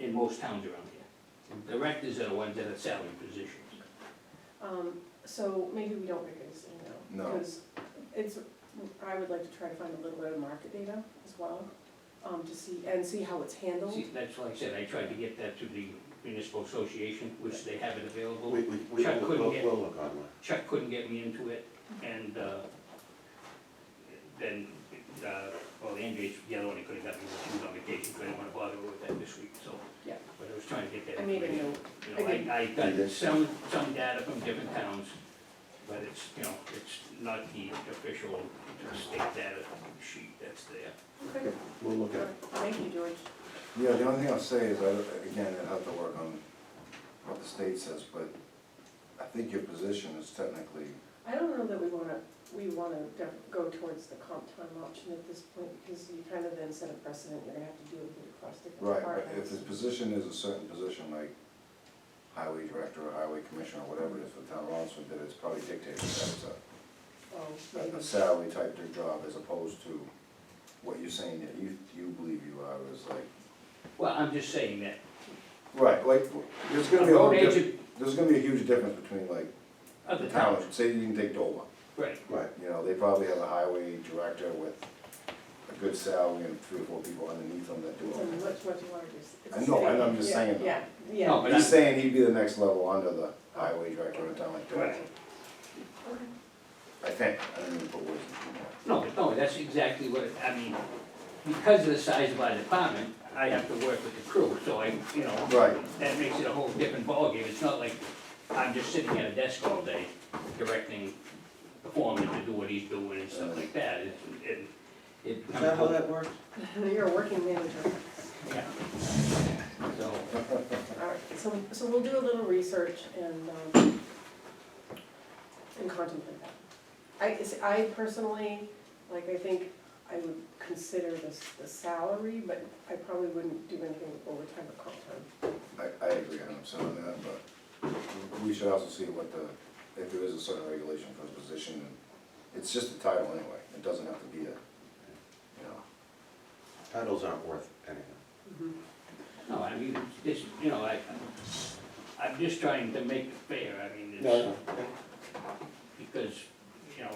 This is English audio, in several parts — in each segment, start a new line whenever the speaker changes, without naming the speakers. in most towns around here. Directors are the ones that are salary positions.
Um, so maybe we don't make this thing now.
No.
Because it's, I would like to try to find a little bit of market data as well, um, to see, and see how it's handled.
See, that's like I said, I tried to get that to the municipal association, which they have it available.
We, we, we-
Chuck couldn't
we'll,
get-
we'll look online.
Chuck couldn't get me into it, and, uh, then, uh, well, Andrea's the other one that could have got me, but she was on vacation, couldn't wanna bother her with that this week, so.
Yeah.
But I was trying to get that
I made a
information,
note,
you know, I, I
You
got
did?
some, some data from different towns, but it's, you know, it's not the official state data sheet that's there.
okay,
We'll look at it.
thank you, George.
Yeah, the only thing I'll say is, I, again, I have to work on what the state says, but I think your position is technically,
I don't know that we wanna, we wanna def- go towards the comp time option at this point, because you kind of then set a precedent, you're gonna have to deal with it across different
right, but
departments.
if the position is a certain position, like highway director or highway commissioner or whatever it is for town of Rollinsford, that it's probably dictated that it's
Oh,
a,
maybe.
a salary type of job as opposed to what you're saying that you, you believe you are is like,
Well, I'm just saying that,
right, like, there's
a
gonna be a whole
road
diff,
agent
there's gonna be a huge difference between like,
of
the
the
town,
towns,
say you can take Dover,
right,
Right.
You know, they probably have a highway director with a good salary and three or four people underneath them that do
It's a
it.
much, much larger. s- it's a
I know, I know, I'm
city.
just
Yeah,
saying though.
Yeah,
No,
yeah.
but
He's saying he'd be the next level under the highway director in a town like that.
Right.
Okay.
I think, I didn't even put words in his mouth.
No, no, that's exactly what, I mean, because of the size of our department, I have to work with the crew, so I, you know,
Right,
that makes it a whole different ballgame. It's not like I'm just sitting at a desk all day directing the foreman to do what he's doing and stuff like that. It's- It, it.
Is that how that works?
You're a working manager.
Yeah. So,
All right, so, so we'll do a little research and, um, and contemplate that. I, is- I personally, like, I think I would consider this the salary, but I probably wouldn't do anything with overtime or comp time.
I, I agree hundred percent on that, but we should also see what the, if there is a certain regulation for the position. and It's just a title anyway, it doesn't have to be a, you know.
Titles aren't worth anything.
no, I mean, it's, you know, I, I'm just trying to make it fair. I mean, it's. because, you know,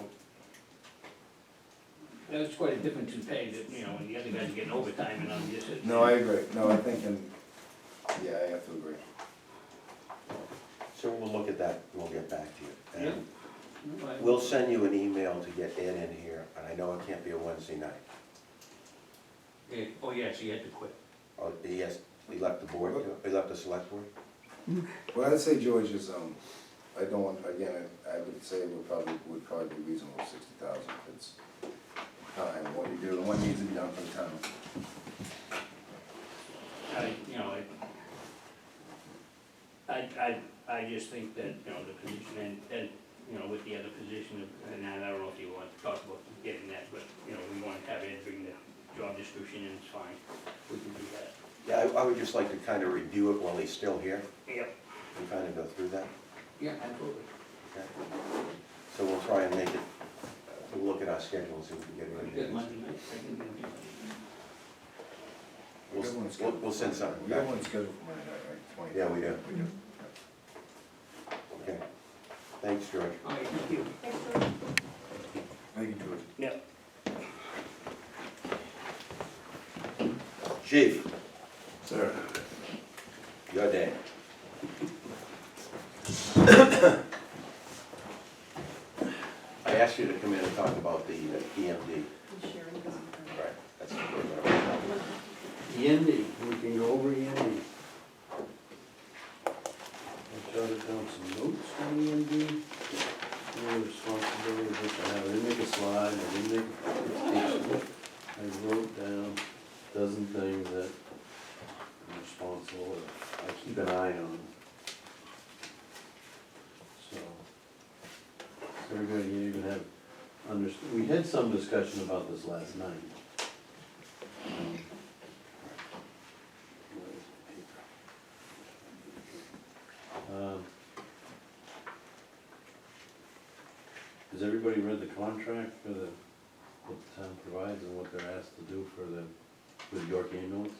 that's quite a difference in pay that, you know, and the other guy's getting overtime and I'm just.
No, I agree, no, I think, in yeah, I have to agree.
So we'll look at that, and we'll get back to you. And
But-
We'll send you an email to get Ed in here, and I know it can't be a Wednesday night.
Yeah, Oh, yes, he had to quit.
Oh, he has, he left the board, he left the select board?
Well, I'd say George is, um, I don't want, again, I I would say would probably, would probably be reasonable sixty thousand, it's time, what you do, and what needs to be done for the town.
I, you know, I, I, I, I just think that, you know, the position and, and, you know, with the other position, and I don't know if you want to talk about getting that, but, you know, we want to have Ed bring the job description in, it's fine. We can do that.
Yeah, I, I would just like to kind of review it while he's still here,
Yep.
and kind of go through that,
Yeah, absolutely.
okay? So we'll try and make it, uh, we'll look at our schedule and see if we
Pretty
can get it
good
in.
Monday night, I can do it.
We
We'll,
got one
we'll-
scheduled-
we'll send something
We got
back,
one scheduled for Monday night, right, twenty?
Yeah, we do.
We do.
okay? Thanks, George.
All right, thank you.
Thanks, George.
Thank you, George.
Yep.
Chief,
Sir.
your day. I asked you to come in and talk about the uh, EMD.
I'm sharing this.
Right. That's what we're gonna-
Yandy, E we can go over E Yandy. I jotted down some notes on E Yandy. Their responsibilities, which I have, I didn't make a slide, I didn't make a presentation. I wrote down a dozen things that I'm responsible, or I keep an eye on. So, so everybody here even have, underst, we had some discussion about this last night. Um, um, Has everybody read the contract for the, what the town provides and what they're asked to do for the, with York ambulance?